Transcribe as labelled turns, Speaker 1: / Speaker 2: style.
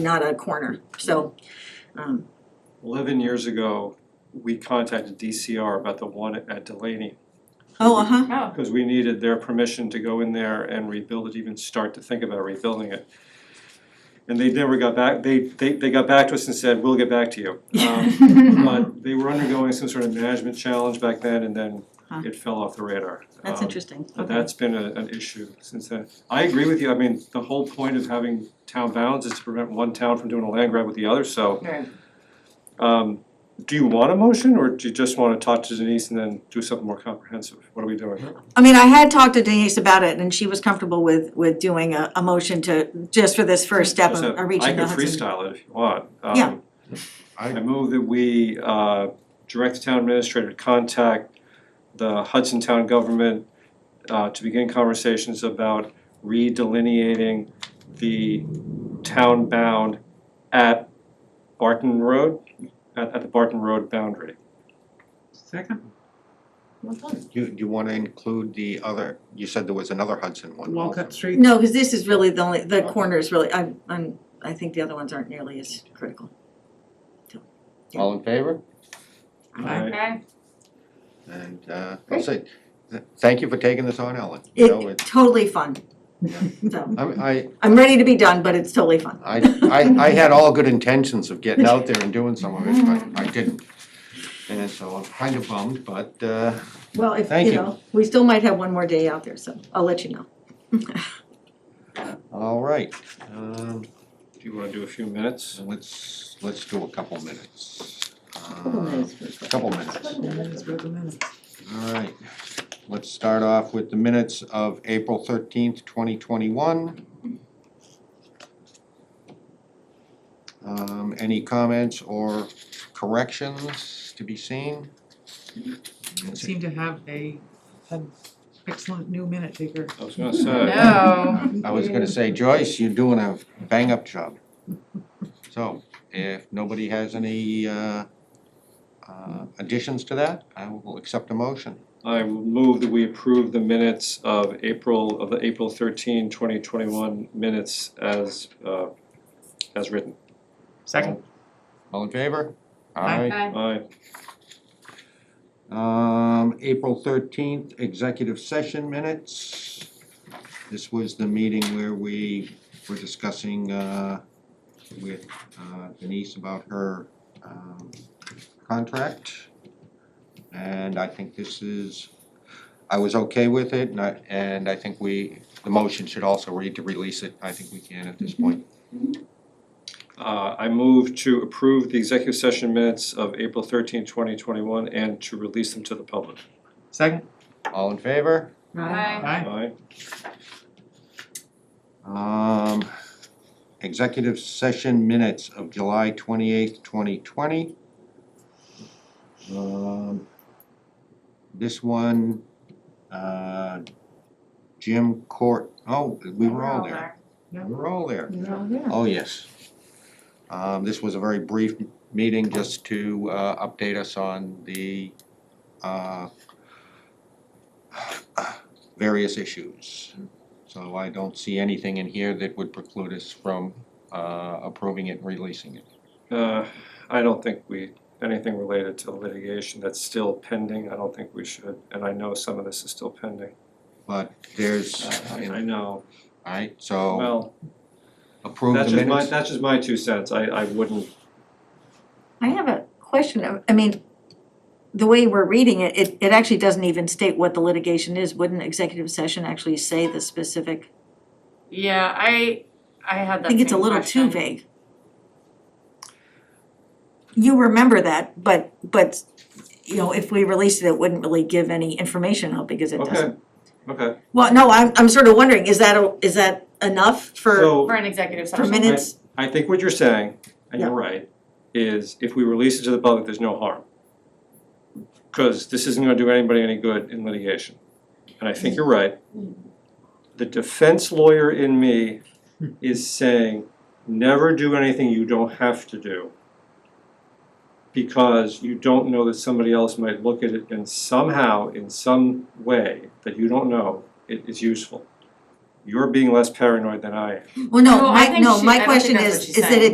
Speaker 1: not a corner, so, um,
Speaker 2: Eleven years ago, we contacted DCR about the one at Delaney,
Speaker 1: oh, uh-huh,
Speaker 3: Oh,
Speaker 2: because we needed their permission to go in there and rebuild it, even start to think about rebuilding it. And they never got back, they they they got back to us and said, we'll get back to you. Um, But they were undergoing some sort of management challenge back then, and then
Speaker 1: Huh.
Speaker 2: it fell off the radar.
Speaker 1: that's
Speaker 2: Um,
Speaker 1: interesting,
Speaker 2: But
Speaker 1: okay,
Speaker 2: that's been a an issue since then. I agree with you, I mean, the whole point of having town bounds is to prevent one town from doing a land grab with the other, so
Speaker 3: right.
Speaker 2: Um, do you want a motion, or do you just wanna talk to Denise and then do something more comprehensive? What are we doing?
Speaker 1: I mean, I had talked to Denise about it, and she was comfortable with, with doing a, a motion to, just for this first step of
Speaker 2: Just
Speaker 1: of
Speaker 2: have-
Speaker 1: reaching the
Speaker 2: I
Speaker 1: Hudson.
Speaker 2: can freestyle it if you want. Um,
Speaker 1: Yeah.
Speaker 2: I move that we, uh, direct the town administrator to contact the Hudson Town Government, uh, to begin conversations about redelineating the town bound at Barton Road, at, at the Barton Road boundary.
Speaker 4: Second,
Speaker 3: Well done.
Speaker 5: Do do you wanna include the other, you said there was another Hudson one also.
Speaker 4: Walcott Street.
Speaker 1: No, cause this is really the only, the corner is really, I'm, I'm, I think the other ones aren't nearly as critical.
Speaker 6: All in favor?
Speaker 4: Aye.
Speaker 3: Okay,
Speaker 5: And uh that's it. Th- Thank you for taking this on, Ellen. You know,
Speaker 1: It,
Speaker 5: it-
Speaker 1: totally fun. So,
Speaker 5: I'm- I
Speaker 1: I'm ready to be done, but it's totally fun.
Speaker 5: I I I had all good intentions of getting out there and doing some of it, but I didn't. And so I'm kind of bummed, but uh
Speaker 1: Well, if,
Speaker 5: Thank
Speaker 1: you
Speaker 5: you.
Speaker 1: know, we still might have one more day out there, so I'll let you know.
Speaker 5: all right. Um
Speaker 2: Do you wanna do a few minutes?
Speaker 5: so let's let's do a couple minutes.
Speaker 1: Couple minutes for a
Speaker 5: Uh,
Speaker 1: second.
Speaker 5: Couple minutes. All right, let's start off with the minutes of April thirteenth, twenty twenty-one. Um, any comments or corrections to be seen?
Speaker 4: We Seem to have a, an excellent new minute taker.
Speaker 2: I was gonna say.
Speaker 3: no.
Speaker 5: I was gonna say, Joyce, you're doing a bang-up job. So, if nobody has any, uh, uh, additions to that, I will accept a motion.
Speaker 2: I will move that we approve the minutes of April, of the April 13, 2021 minutes as uh as written.
Speaker 4: Second.
Speaker 5: All in favor?
Speaker 4: Aye.
Speaker 3: Okay.
Speaker 2: Aye,
Speaker 5: Um, April thirteenth, executive session minutes. This was the meeting where we were discussing, uh, with uh, Denise about her, um, contract. And I think this is, I was okay with it, and I, and I think we, the motion should also read to release it. I think we can at this point.
Speaker 2: uh I move to approve the executive session minutes of April 13, 2021, and to release them to the public.
Speaker 4: Second.
Speaker 5: All in favor?
Speaker 3: Aye.
Speaker 4: Aye.
Speaker 2: Aye,
Speaker 5: Um, executive session minutes of July twenty-eighth, twenty twenty. Um, this one, uh, Jim Court, oh, we were all there, we were all there, oh, yes. Um, this was a very brief meeting just to, uh, update us on the, uh, various issues. So I don't see anything in here that would preclude us from uh, approving it and releasing it.
Speaker 2: uh I don't think we, anything related to litigation that's still pending, I don't think we should, and I know some of this is still pending.
Speaker 5: But there's,
Speaker 2: Uh, I I
Speaker 5: all
Speaker 2: know,
Speaker 5: right, so
Speaker 2: well,
Speaker 5: approve
Speaker 2: that's
Speaker 5: the
Speaker 2: just my,
Speaker 5: minutes.
Speaker 2: that's just my two cents, I I wouldn't
Speaker 1: I have a question, I- I mean, the way we're reading it, it, it actually doesn't even state what the litigation is, wouldn't executive session actually say the specific?
Speaker 3: Yeah, I, I had that
Speaker 1: I think it's a
Speaker 3: same
Speaker 1: little too
Speaker 3: question.
Speaker 1: vague. You remember that, but, but, you know, if we released it, it wouldn't really give any information out because it
Speaker 2: Okay.
Speaker 1: doesn't.
Speaker 2: Okay,
Speaker 1: Well, no, I'm, I'm sort of wondering, is that, a- is that enough for,
Speaker 2: so
Speaker 3: For an executive
Speaker 1: for
Speaker 3: session.
Speaker 1: minutes?
Speaker 2: I think what you're saying, and you're
Speaker 1: Yeah.
Speaker 2: right, is if we release it to the public, there's no harm. Cause this isn't gonna do anybody any good in litigation, and I think you're right. The defense lawyer in me is saying, never do anything you don't have to do. Because you don't know that somebody else might look at it and somehow, in some way that you don't know, it is useful. You're being less paranoid than I am.
Speaker 1: Well, no,
Speaker 3: No, I
Speaker 1: my,
Speaker 3: think
Speaker 1: no,
Speaker 3: she- I
Speaker 1: my
Speaker 3: don't think
Speaker 1: question
Speaker 3: that's what
Speaker 1: is,
Speaker 3: she's
Speaker 1: is that
Speaker 3: saying.
Speaker 1: it